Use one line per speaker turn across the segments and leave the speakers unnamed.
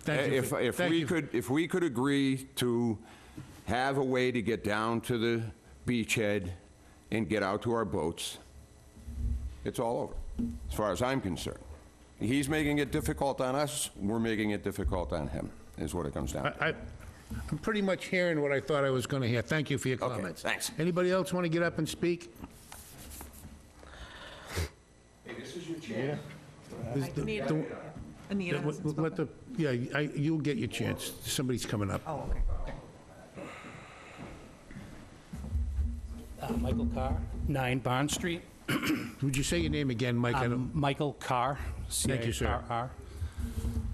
Thank you
Eh, If,
for-
if
thank
we
you.
could, if we could agree to have a way to get down to the beachhead and get out to our boats, it's all over, as far as I'm concerned. He's making it difficult on us, we're making it difficult on him, is what it comes down to.
I, I- I'm pretty much hearing what I thought I was going to hear. Thank you for your
Okay,
comments.
thanks.
Anybody else want to get up and speak?
Anita, Anita
Let-
hasn't
Let
spoken.
the, yeah, I- you'll get your chance. Somebody's coming up.
Oh, okay.
Uh, Michael Carr, 9 Barn Street.
Would you say your name again, Mike? I don't-
Um, Michael Carr,
Thank you, sir.
C-A-R-R.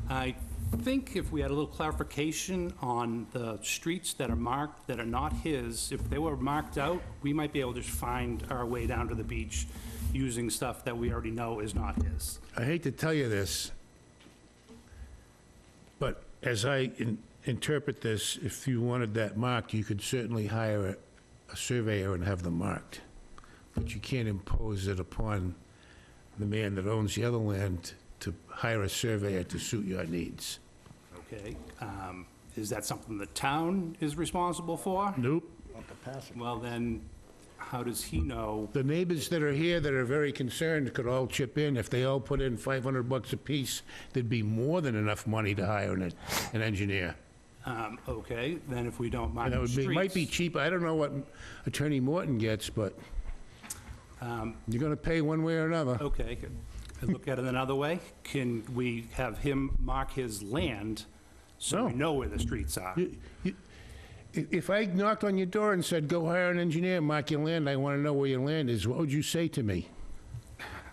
I think if we had a little clarification on the streets that are marked, that are not his, if they were marked out, we might be able to find our way down to the beach using stuff that we already know is not his.
I hate to tell you this, but as I in- interpret this, if you wanted that marked, you could certainly hire a- a surveyor and have them marked. But you can't impose it upon the man that owns the other land to hire a surveyor to suit your needs.
Okay? Um, Is that something the town is responsible for?
Nope.
Well, then, how does he know?
The neighbors that are here that are very concerned could all chip in. If they all put in 500 bucks apiece, there'd be more than enough money to hire an an engineer.
Um, Okay, then if we don't mark
And that
the
would
streets...
be, might be cheap, I don't know what Attorney Morton gets, but
Um,
you're gonna pay one way or another.
Okay, good. And look at it another way, can we have him mark his land so we know where the streets are?
You- i- If I knocked on your door and said, "Go hire an engineer, mark your land, I wanna know where your land is," what would you say to me?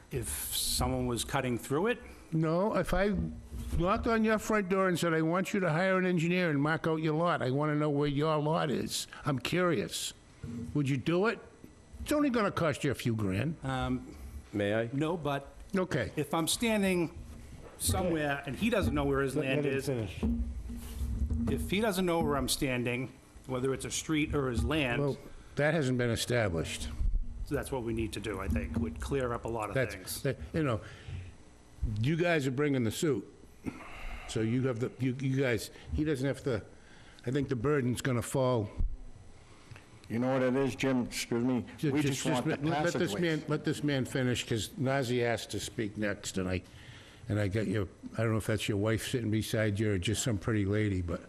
If someone was cutting through it,
No, if I knocked on your front door and said, "I want you to hire an engineer and mark out your lot, I wanna know where your lot is, I'm curious," would you do it? It's only gonna cost you a few grand.
Uh,
May I?
no, but
Okay,
if I'm standing somewhere and he doesn't know where his land is, if he doesn't know where I'm standing, whether it's a street or his land,
well, that hasn't been established.
that's what we need to do, I think, would clear up a lot of
That's,
things.
that- you know, you guys are bringing the suit. So you have the, you, you guys, he doesn't have to, I think the burden's gonna fall.
You know what it is, Jim, excuse me?
Ju-
We just want the
let- let this man-
passageways.
Let this man finish, because Nazzy asked to speak next, and I, and I got your, I don't know if that's your wife sitting beside you or just some pretty lady, but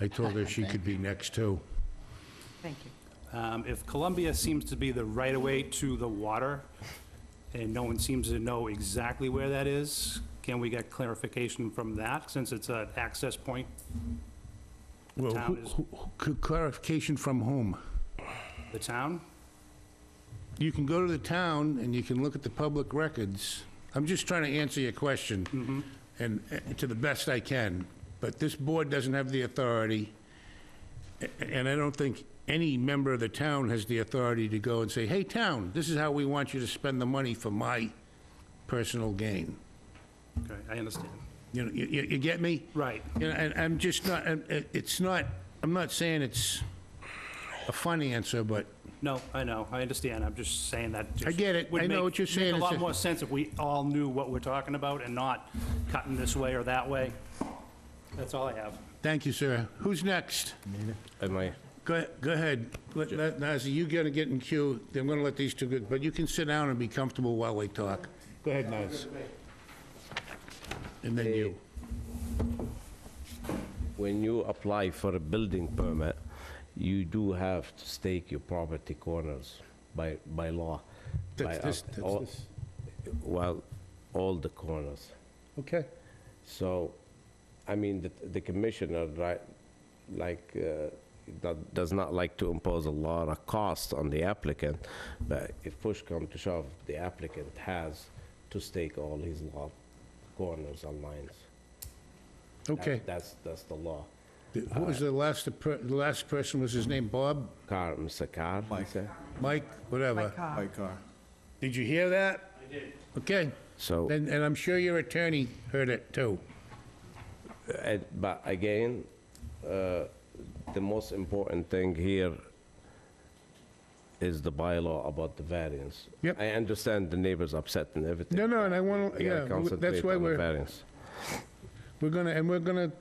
I told her she could be next too.
Thank you.
Um, If Columbia seems to be the right-of-way to the water, and no one seems to know exactly where that is, can we get clarification from that, since it's an access point?
Well,
town
who-
is-
who- who- clarification from whom?
The town?
You can go to the town and you can look at the public records. I'm just trying to answer your question, and uh, to the best I can. But this board doesn't have the authority, a- and I don't think any member of the town has the authority to go and say, "Hey, town, this is how we want you to spend the money for my personal gain."
Okay, I understand.
You know, you- you you get me?
Right.
You know, And I'm just not, and it- it's not, I'm not saying it's a fun answer, but
No, I know, I understand, I'm just saying that just...
I get it.
would
I know
make-
what you're saying.
Make
It's
a lot
just-
more sense if we all knew what we're talking about and not cutting this way or that way. That's all I have.
thank you, sir. Who's next?
Am I?
Go go ahead. Let- let- Nazzy, you gotta get in queue, then I'm gonna let these two, go but you can sit down and be comfortable while we talk. Go ahead, Naz. And then you.
When you apply for a building permit, you do have to stake your property corners by, by law.
That's
by
this-
up-
that's
all-
this.
Well, all the corners.
Okay.
So, I mean, the, the commissioner, right, like, uh, that does not like to impose a lot of cost on the applicant, but if push come to shove, the applicant has to stake all his lot corners and lines. That-
Okay.
That's, that's the law.
Th- Who was the last, per- the last person, was his name Bob?
Car, Mr. Car? Mike.
Mike,
My
whatever.
car.
My car.
Did you hear that? I did. Okay.
So-
And, and I'm sure your attorney heard it too.
And- But again, uh, the most important thing here is the bylaw about the variance.
Yep.
I understand the neighbors upset and everything.
No, no, and I wanna-
We gotta
yeah, w- that's
concentrate
why
on the
we're-
variance.
We're gonna, and we're gonna